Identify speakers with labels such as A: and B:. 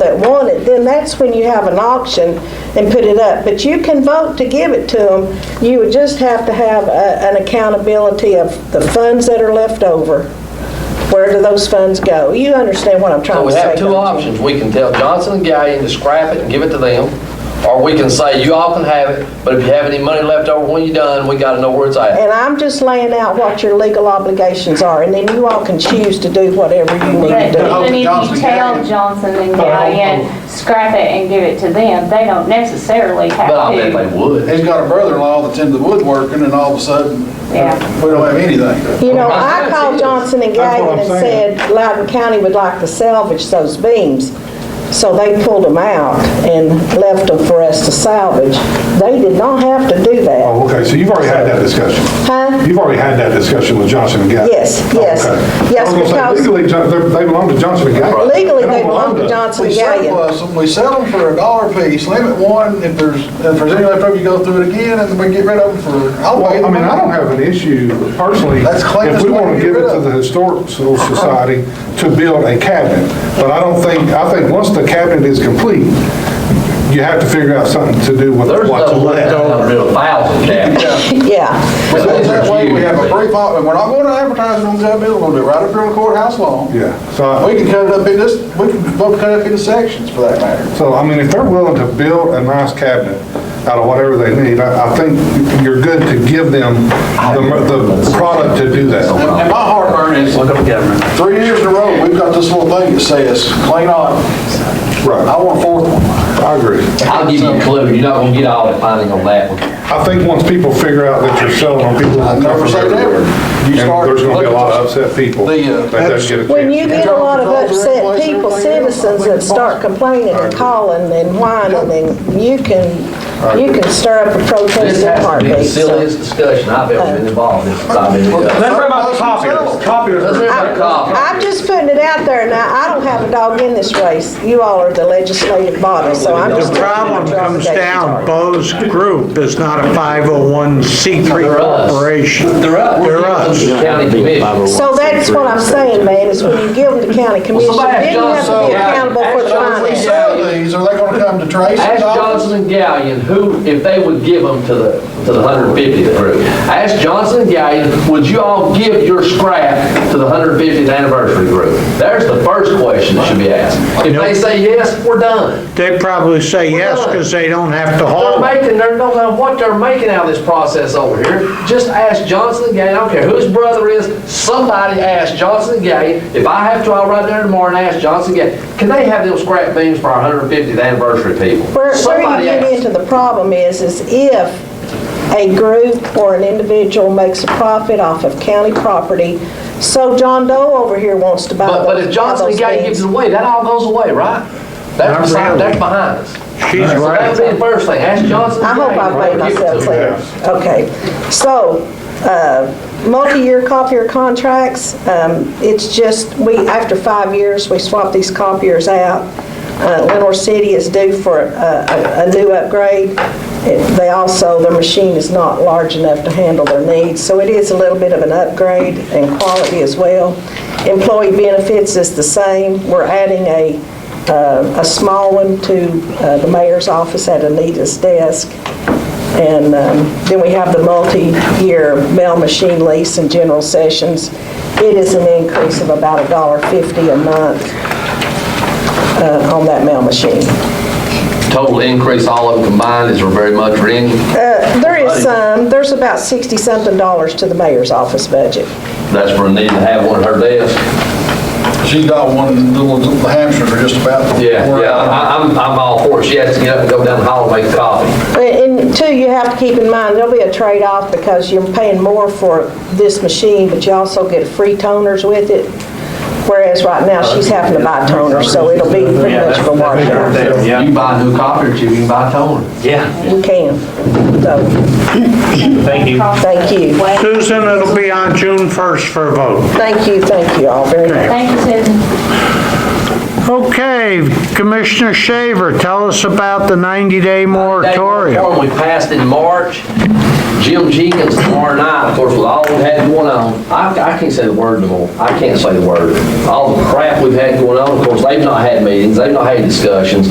A: that want it, then that's when you have an auction and put it up. But you can vote to give it to them. You would just have to have a- an accountability of the funds that are left over. Where do those funds go? You understand what I'm
B: So
A: trying to
B: Oh, we
A: say.
B: have
A: don't
B: two
A: you?
B: options. We can tell Johnson and Gallion to scrap it and give it to them, or we can say, you all can have it, but if you have any money left over when you're done, we gotta know where it's at.
A: And I'm just laying out what your legal obligations are, and then you all can choose to do whatever you need to do.
C: But even if
D: Johnson
C: you
D: and
C: tell
D: Gallion.
C: Johnson and
D: Hold on,
C: Gallion, scrap it and give it to them, they don't necessarily have
B: But I bet
C: to.
B: they would.
D: He's got a brother-in-law that's into woodworking, and all of a sudden, uh,
C: Yeah,
D: we don't have anything.
A: You know, I
B: That's
A: called
B: it.
A: Johnson and
E: That's what
A: Gagnon and
E: I'm saying.
A: said Loudon County would like to salvage those beams. So they pulled them out and left them for us to salvage. They did not have to do that.
E: Oh, okay, so you've already had that discussion?
A: Huh?
E: You've already had that discussion with Johnson and Gaddy?
A: Yes, yes.
E: Okay.
A: Yes,
E: I was gonna
A: because-
E: say, legally, John- they're- they belong to Johnson and Gaddy.
A: Legally, they
E: Oh, don't
A: belong to Johnson and
D: We
A: Gagnon.
D: surplus them, we sell them for a dollar apiece, limit one, if there's, if there's any left over, you go through it again, and we get rid of them for, I'll pay
E: Well, I
D: them.
E: mean, I don't have an issue personally,
D: That's clean
E: if
D: as
E: we
D: well,
E: want to
D: get
E: give
D: rid
E: it to
D: of it.
E: the Historical Society to build a cabinet, but I don't think, I think once the cabinet is complete, you have to figure out something to do with
B: There's
E: what's
B: no way
E: left.
B: they'll build a thousand cabinets.
A: Yeah.
D: But
B: But
D: That
B: it's
D: way, we
B: you.
D: have a brief, au- and we're not going to advertise it on Gov. Bill, we'll do it right up here on the courthouse lawn.
E: Yeah, so I-
D: We can cut it up in this, we can both cut it up into sections, for that matter.
E: So, I mean, if they're willing to build a nice cabinet out of whatever they need, I, I think you're good to give them the, the product to do that.
D: And my heartburn is,
B: Look up government.
D: three years in a row, we've got this little thing that says, clean audit. I
E: Right,
D: want a fourth one.
E: I agree.
B: I'll give you a clue, you're not gonna get all the finding on that one.
E: I think once people figure out that you're selling on people.
D: I never say never.
E: And
D: You start
E: there's gonna be a lot
D: looking-
E: of upset people that
D: The, uh,
E: doesn't get a chance.
A: When you get a lot of upset people, citizens that start complaining and calling and whining, and you can, you can stir up a protest
B: This
A: in a
B: has to be the
A: heartbeat. so.
B: silliest discussion I've ever been involved in since I've been. here.
E: Let's talk about copiers,
B: Let's
E: copiers.
B: hear about coffee.
A: I'm just putting it out there now. I don't have a dog in this race. You all are the legislative body, so I'm just.
F: The problem comes down, Bo's group is not a 501c3
B: They're us.
F: corporation.
B: They're up.
F: They're us.
B: County commission.
A: So that's what I'm saying, man, is when you give them to county commission,
B: somebody
A: then
B: asked
A: you have to
B: Johnson,
A: be accountable for the
B: asked Johnson,
D: If we
A: findings.
D: sell these, are they gonna come to Tracy's
B: Ask
D: office?
B: Johnson and Gallion who, if they would give them to the, to the 150th group. Ask Johnson and Gallion, would you all give your scrap to the 150th anniversary group? There's the first question that should be asked. If they say yes, we're done. Oh.
F: They probably say yes because they don't have to
B: They're
F: haul it.
B: making, they're, no matter what they're making out of this process over here, just ask Johnson and Gallion, I don't care who his brother is, somebody ask Johnson and Gallion. If I have to, I'll ride there tomorrow and ask Johnson and Gallion, can they have them scrap beams for our 150th anniversary people?
A: Where, where you
B: Somebody
A: get
B: ask.
A: into the problem is, is if a group or an individual makes a profit off of county property, so John Doe over here wants to buy
B: But,
A: those.
B: but if Johnson and
A: those
B: Gay
A: things.
B: gives it away, that all goes away, right? That's
F: Not
B: beside,
F: really.
B: that's behind us.
F: She's
B: So
F: right.
B: that'd be the first thing, ask Johnson
A: I
B: and
A: hope
B: Gay
A: I've made
B: before you give it
A: myself
B: to them.
A: clear. Okay, so, uh, multi-year copier contracts, um, it's just, we, after five years, we swap these copiers out. Uh, Lenore City is due for uh, a, a- a new upgrade. It- They also, their machine is not large enough to handle their needs, so it is a little bit of an upgrade in quality as well. Employee benefits is the same. We're adding a uh, a small one to uh, the mayor's office at Anita's desk. And um, then we have the multi-year mail machine lease and general sessions. It is an increase of about $1.50 a month uh, on that mail machine.
B: Total increase, all of them combined, is very much ringing.
A: There is some, there's about 60-something dollars to the mayor's office budget.
B: That's for needing to have one at her desk.
D: She's got one, little little hamsters are just about. to
B: Yeah,
D: wear
B: yeah,
D: out.
B: I, I'm, I'm all for it. She has to get up and go down the hall and make coffee.
A: And two, you have to keep in mind, there'll be a trade-off because you're paying more for this machine, but you also get free toners with it. Whereas right now, she's having to buy toners, so it'll be pretty much for washout.
B: You can buy a new copier, you can buy a toner.
A: We can. So,
G: Thank you.
A: thank you.
F: Susan, it'll be on June 1st for a vote.
A: Thank you, thank you all very much.
C: thank you, Susan.
F: Okay, Commissioner Shaver, tell us about the 90-day moratorium.
B: We passed in March. Jim Jenkins tomorrow night, of course, with all we've had going on, I, I can't say the word no more. I can't say the word. All the crap we've had going on, of course, they've not had meetings, they've not had discussions.